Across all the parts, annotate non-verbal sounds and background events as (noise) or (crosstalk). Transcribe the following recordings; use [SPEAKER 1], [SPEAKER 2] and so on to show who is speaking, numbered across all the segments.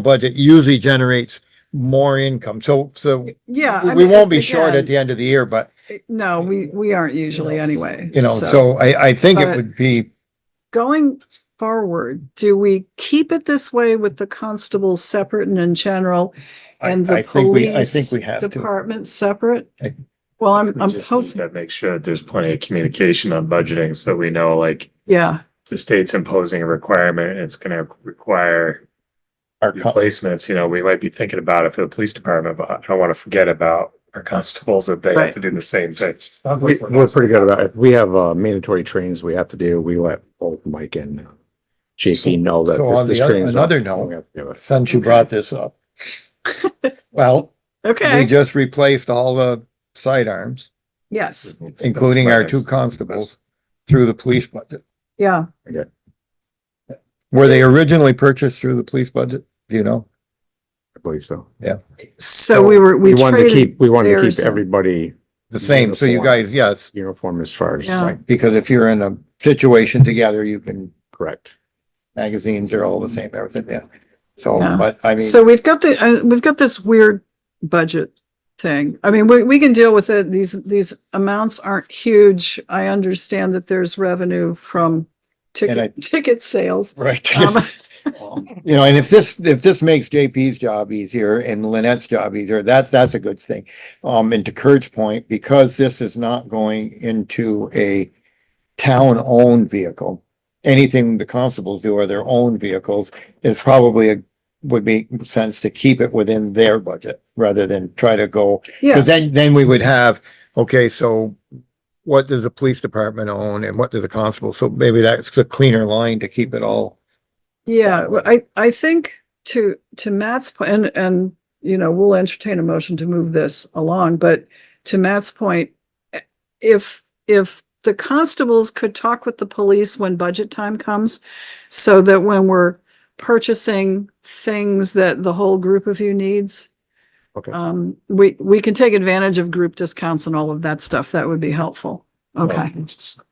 [SPEAKER 1] budget usually generates more income. So, so
[SPEAKER 2] Yeah. I
[SPEAKER 1] we
[SPEAKER 2] mean,
[SPEAKER 1] won't be short at
[SPEAKER 2] again,
[SPEAKER 1] the end of the year, but
[SPEAKER 2] No, we, we aren't usually anyway.
[SPEAKER 1] you know, so I, I think it would be,
[SPEAKER 2] Going forward, do we keep it this way with the constables separate and in general?
[SPEAKER 1] I,
[SPEAKER 2] And the
[SPEAKER 1] I think we, I
[SPEAKER 2] police
[SPEAKER 1] think we have to.
[SPEAKER 2] department separate?
[SPEAKER 1] I-
[SPEAKER 2] Well, I'm,
[SPEAKER 3] We
[SPEAKER 2] I'm
[SPEAKER 3] just need
[SPEAKER 2] posting,
[SPEAKER 3] to Make sure that there's plenty of communication on budgeting, so we know like
[SPEAKER 2] yeah,
[SPEAKER 3] the state's imposing a requirement, and it's gonna require
[SPEAKER 1] our co-
[SPEAKER 3] replacements, you know, we might be thinking about it for the police department, but I don't wanna forget about our constables that they have to do the same thing.
[SPEAKER 4] We, we're pretty good about it. If we have, uh, mandatory trainings we have to do, we let both Mike and JP know that.
[SPEAKER 1] So
[SPEAKER 4] this-
[SPEAKER 1] on
[SPEAKER 4] this
[SPEAKER 1] the other-
[SPEAKER 4] training's
[SPEAKER 1] another
[SPEAKER 4] on-
[SPEAKER 1] note-
[SPEAKER 4] we have to do it.
[SPEAKER 1] Since you brought this
[SPEAKER 2] (laughs)
[SPEAKER 1] up. Well, we
[SPEAKER 2] okay,
[SPEAKER 1] just replaced all the sidearms,
[SPEAKER 2] yes,
[SPEAKER 1] including our two constables, through the police budget.
[SPEAKER 2] yeah.
[SPEAKER 1] Were they originally purchased through the police budget? Do you know?
[SPEAKER 4] I believe so.
[SPEAKER 2] So we were, we
[SPEAKER 4] We wanted to
[SPEAKER 2] traded,
[SPEAKER 4] keep, we wanted to
[SPEAKER 2] theirs
[SPEAKER 4] keep
[SPEAKER 2] in.
[SPEAKER 4] everybody
[SPEAKER 1] The same, so you
[SPEAKER 4] Uniform.
[SPEAKER 1] guys, yes,
[SPEAKER 4] uniform as far as,
[SPEAKER 2] Yeah.
[SPEAKER 4] like,
[SPEAKER 1] because if you're in a situation together, you can,
[SPEAKER 4] correct.
[SPEAKER 1] magazines are all the same, everything, yeah. So,
[SPEAKER 2] Mm-hmm. Yeah.
[SPEAKER 1] but I mean,
[SPEAKER 2] so we've got the, uh, we've got this weird budget thing. I mean, we, we can deal with it. These, these amounts aren't huge. I understand that there's revenue from
[SPEAKER 1] I-
[SPEAKER 2] ticket, ticket
[SPEAKER 1] (laughs)
[SPEAKER 2] sales.
[SPEAKER 1] right,
[SPEAKER 2] Um,
[SPEAKER 1] you know, and if this, if this makes JP's job easier and Lynette's job easier, that's, that's a good thing. Um, and to Kurt's point, because this is not going into a town-owned vehicle, anything the constables do are their own vehicles, is probably a, would make sense to keep it within their budget rather than try to go
[SPEAKER 2] Yeah,
[SPEAKER 1] Cause then, then we would have, okay, so what does the police department own and what does the constable? So maybe that's a cleaner line to keep it all.
[SPEAKER 2] yeah. Well, I, I think to, to Matt's point, and, and, you know, we'll entertain a motion to move this along, but to Matt's point, if, if the constables could talk with the police when budget time comes, so that when we're purchasing things that the whole group of you needs,
[SPEAKER 4] Okay.
[SPEAKER 2] um, we, we can take advantage of group discounts and all of that stuff. That would be helpful. Okay,
[SPEAKER 3] Um, Just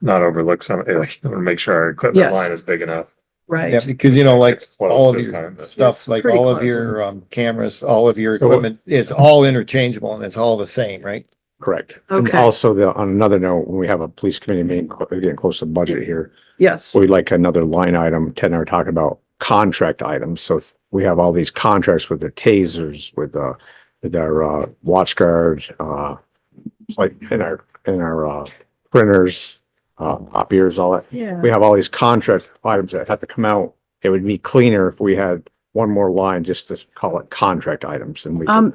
[SPEAKER 3] Not overlook some, like, make sure our equipment
[SPEAKER 2] Yes.
[SPEAKER 3] line is big enough.
[SPEAKER 1] Yeah,
[SPEAKER 2] right.
[SPEAKER 1] because you know, like
[SPEAKER 3] It's close
[SPEAKER 1] all of
[SPEAKER 3] this
[SPEAKER 1] your
[SPEAKER 3] time, but-
[SPEAKER 1] stuff,
[SPEAKER 2] It's
[SPEAKER 1] like
[SPEAKER 2] pretty
[SPEAKER 1] all of
[SPEAKER 2] close.
[SPEAKER 1] your, um, cameras, all of your
[SPEAKER 4] So what-
[SPEAKER 1] equipment, it's all interchangeable and it's all the same, right?
[SPEAKER 4] Correct. And
[SPEAKER 2] Okay.
[SPEAKER 4] also the, on another note, when we have a police committee meeting, we're getting close to budget here.
[SPEAKER 2] Yes.
[SPEAKER 4] We'd like another line item, Ted and I are talking about contract items, so if we have all these contracts with the tasers, with uh, with our uh, watch guards, uh, like in our, in our uh, printers, uh, copiers, all that.
[SPEAKER 2] Yeah.
[SPEAKER 4] We have all these contract items that have to come out. It would be cleaner if we had one more line just to call it contract items and we. could-
[SPEAKER 2] Um,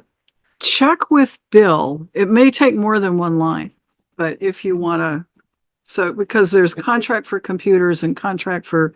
[SPEAKER 2] check with Bill. It may take more than one line, but if you wanna, so because there's contract for computers and contract for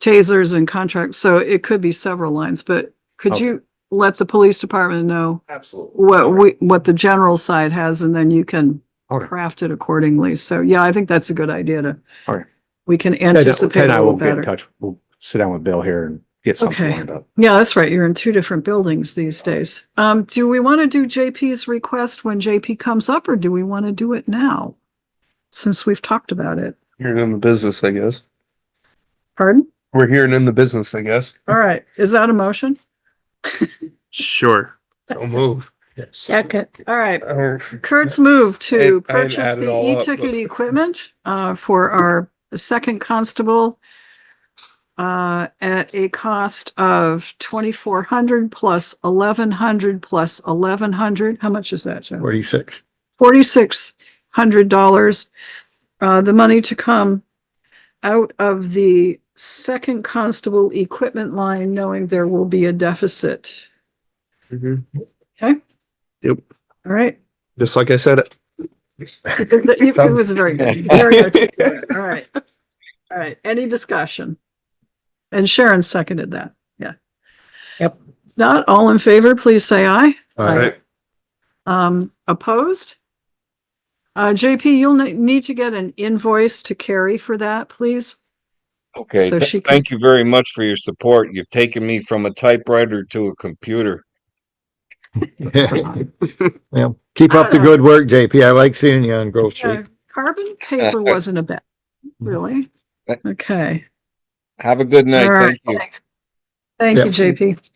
[SPEAKER 2] tasers and contract, so it could be several lines, but could
[SPEAKER 4] Okay.
[SPEAKER 2] you let the police department know
[SPEAKER 4] Absolutely.
[SPEAKER 2] what we, what the general side has and then you can
[SPEAKER 4] Okay.
[SPEAKER 2] craft it accordingly. So yeah, I think that's a good idea to.
[SPEAKER 4] All right.
[SPEAKER 2] We can
[SPEAKER 4] Ted Ted
[SPEAKER 2] anticipate
[SPEAKER 4] and
[SPEAKER 2] a
[SPEAKER 4] I
[SPEAKER 2] little
[SPEAKER 4] will get in
[SPEAKER 2] better.
[SPEAKER 4] touch. We'll sit down with Bill here and get something
[SPEAKER 2] Okay.
[SPEAKER 4] lined up.
[SPEAKER 2] Yeah, that's right. You're in two different buildings these days. Um, do we want to do JP's request when JP comes up or do we want to do it now? Since we've talked about it.
[SPEAKER 5] Hearing in the business, I guess.
[SPEAKER 2] Pardon?
[SPEAKER 5] We're hearing in the business, I guess.
[SPEAKER 2] All right. Is that a motion?
[SPEAKER 5] Sure. So move.
[SPEAKER 2] Second. All right.
[SPEAKER 5] Uh,
[SPEAKER 2] Kurt's move to
[SPEAKER 5] I- I had
[SPEAKER 2] purchase
[SPEAKER 5] added
[SPEAKER 2] the
[SPEAKER 5] all up,
[SPEAKER 2] e-ticket
[SPEAKER 5] but-
[SPEAKER 2] equipment, uh, for our second constable uh, at a cost of twenty-four hundred plus eleven hundred plus eleven hundred. How much is that, Joe?
[SPEAKER 1] Forty-six.
[SPEAKER 2] forty-six hundred dollars. Uh, the money to come out of the second constable equipment line, knowing there will be a deficit. Okay?
[SPEAKER 5] Mm-hmm. Yep.
[SPEAKER 2] All right.
[SPEAKER 5] Just like I said, it.
[SPEAKER 2] It it- it was very good. Very articulate. All right. All right. Any discussion? And Sharon seconded that. Yeah.
[SPEAKER 1] Yep.
[SPEAKER 2] Not all in favor, please say aye.
[SPEAKER 1] All right,
[SPEAKER 2] Um, opposed? Uh, JP, you'll ne- need to get an invoice to Carrie for that, please.
[SPEAKER 6] Okay,
[SPEAKER 2] So
[SPEAKER 6] th-
[SPEAKER 2] she can-
[SPEAKER 6] thank you very much for your support. You've taken me from a typewriter to a computer.
[SPEAKER 1] yeah, keep up the good work, JP. I like seeing you on Grove
[SPEAKER 2] Yeah,
[SPEAKER 1] Street.
[SPEAKER 2] Carbon paper
[SPEAKER 6] Uh,
[SPEAKER 2] wasn't a bad, really? Okay.
[SPEAKER 6] Have a good night.
[SPEAKER 2] All right.
[SPEAKER 6] uh, Thank you.
[SPEAKER 2] Thanks. Thank you,
[SPEAKER 1] Yep.
[SPEAKER 2] JP.